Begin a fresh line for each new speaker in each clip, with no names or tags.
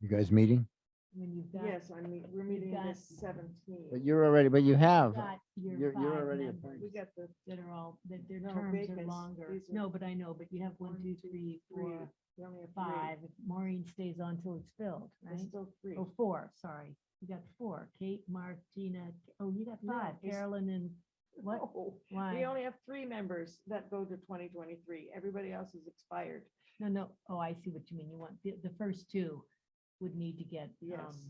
You guys meeting?
When you've got.
Yes, I mean, we're meeting
got-
the seventeenth.
But you're already, but you have,
got your
you're- you're
five
already
members
appointed.
We got the,
That are all, that their
No,
terms are
vacancies.
longer.
These are-
No, but I know, but you have one,
One,
two,
two,
three,
three,
four,
we only have
five.
five,
If Maureen stays on till it's filled,
there's
right?
still three.
Oh, four, sorry. You got four. Kate, Martina, oh, you got
No,
five.
it's-
Carolyn and what?
No, We
Why?
only have three members that go to twenty twenty-three, everybody else is expired.
No, no. Oh, I see what you mean. You want, the, the first two would need to get, um,
Yes.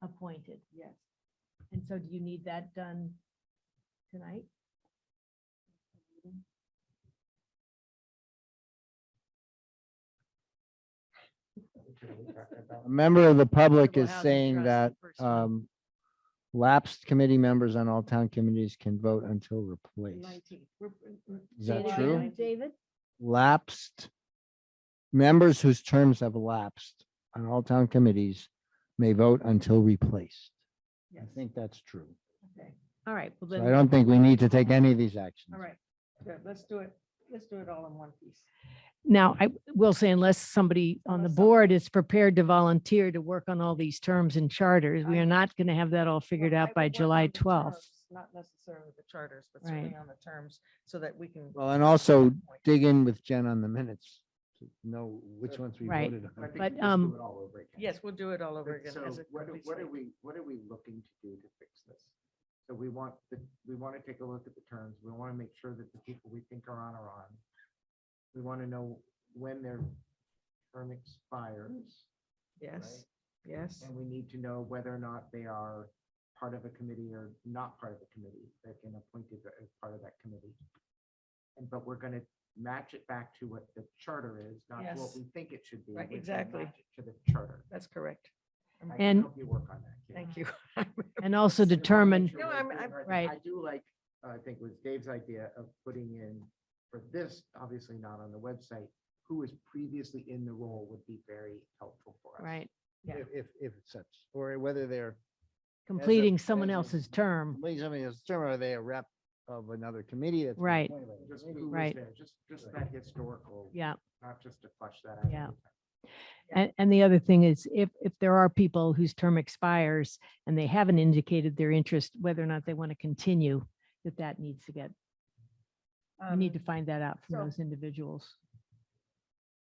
appointed.
Yes,
And so do you need that done tonight?
a member of the public
Affordable
is
Housing
saying
Trust,
that,
first one.
um, lapsed committee members on all town committees can vote until replaced.
nineteenth. We're- we're-
Is
Say
that
it
July
again,
true?
19th.
David?
Lapsed members whose terms have lapsed on all town committees may vote until replaced. I
Yes,
think that's true.
okay.
All right, well
So
then.
I don't think we need to take any of these actions.
All right, good, let's do it, let's do it all in one piece.
Now, I will say unless somebody on the
Unless
board is prepared to volunteer to work on all these terms and charters, we
I-
are not going to have that all figured
Well, I
out by
would work
July
on the
12th.
terms, Not necessarily the charters, but
Right.
certainly on the terms, so that we can.
Well, and also
Point.
dig in with Jen on the minutes to know which ones we
Right.
voted on.
I think
But,
we just do
um,
it all over again.
Yes, we'll do it all over
But
again.
So
as it
what, do-
comes
what are
later.
we, what are we looking to do to fix this? So we want, the we want to take a look at the terms. We want to make sure that the people we think are on are on. We want to know when their term expires.
Yes, yes.
And we need to know whether or not they are part of a committee or not part of a committee, they've been appointed as part of that committee. And but we're gonna match it back to what the charter is, not to
Yes.
what we think it should be.
Right,
We're gonna
exactly.
match it To the charter.
That's correct.
I can
And-
help You work on that. Kate.
Thank you.
And also
It's a
determine,
major way
No, I'm-
of doing
I'm-
our thing.
Right.
I do like, uh, I think it was Dave's idea of putting in, for this, obviously not on the website, who was previously in the role would be very helpful for us.
right,
Yeah.
If, if- if it's such, or whether they're
completing someone
as a-
else's term.
Please, I mean, it's term, are they a rep of another committee? that's been
Right.
appointed by the
Just
committee?
who was
Right.
there, Just, just that historical.
Yeah.
Not just to flush that out.
Yeah.
every time.
Yeah.
And, and the other thing is if, if there are people whose term expires and they haven't indicated their interest, whether or not they want to continue, that that needs to get, we need to
Um,
find that out from
so-
those individuals.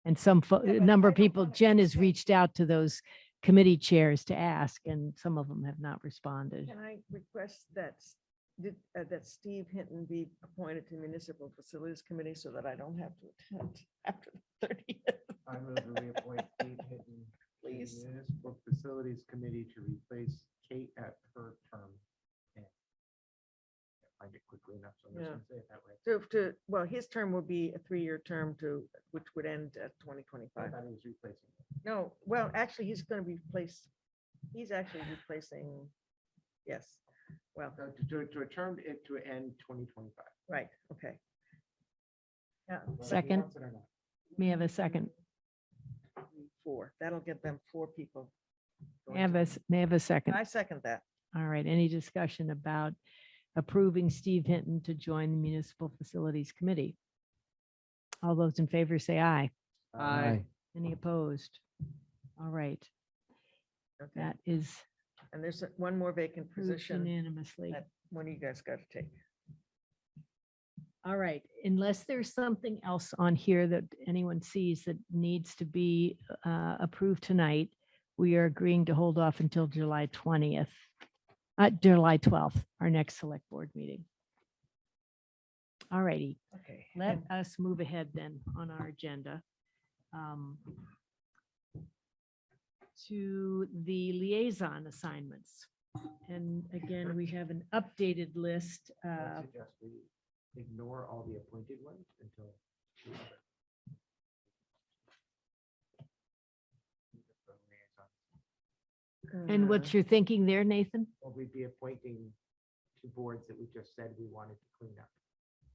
And some, fo- a
Yeah, but
number
I
of
don't
people,
wanna
Jen has
say-
reached out to those committee chairs to ask, and some of them have not responded.
Can I request that, S- did- uh, that Steve Hinton be appointed to Municipal Facilities Committee so that I don't have to attend after the thirtieth?
I move that we appoint Steve Hinton to the
Please.
Municipal Facilities Committee to replace Kate at her term. and- Can't Find it quickly enough, so I'm just
Yeah.
gonna say it that way.
To, to, well, his term will be a three-year term to, which would end at twenty
I
twenty-five.
thought he was replacing. it.
No, well, actually, he's gonna be replaced, he's actually replacing, yes, well,
So uh, to- To, to a term, it to end twenty twenty-five.
right, okay. Yeah,
Second. May I have a second?
four, that'll get them four people.
May I have a, s- may I have a second?
I second that.
All right, any discussion about approving Steve Hinton to join the Municipal Facilities Committee? All those in favor say aye.
Aye.
Any opposed? All right,
Okay.
that is
And there's a- one more vacant
approved
position.
unanimously.
that One of you guys got to take.
All right, unless there's something else on here that anyone sees that needs to be uh, approved tonight, we are agreeing to hold off until July 20th, uh, July 12th, our next select board meeting. All righty,
Okay.
let
and
us move ahead then on our agenda. um, To the liaison assignments. And again, we have an updated list.
I
uh,
suggest we ignore all the appointed ones until. we have it.
uh,
And what's your thinking there, Nathan?
Or we'd be appointing to boards that we just said we wanted to clean up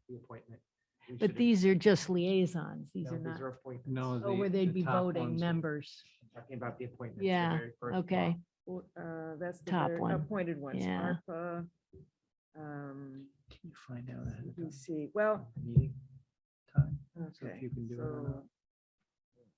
the appointment. We should
But
have-
these are just liaisons. These
no,
are not,
appointments.
No,
oh, where
the-
they'd
the
be
top
voting
ones are-
members.
I'm Talking about the appointments. the
Yeah,
very first
Okay,
block.
uh, uh, That's the
Top
very
one.
appointed ones.
Yeah.
ARPA, um,
Can you find out ahead of time,
PC, well,
the meeting time? So if
okay.
you can do it or
so
not.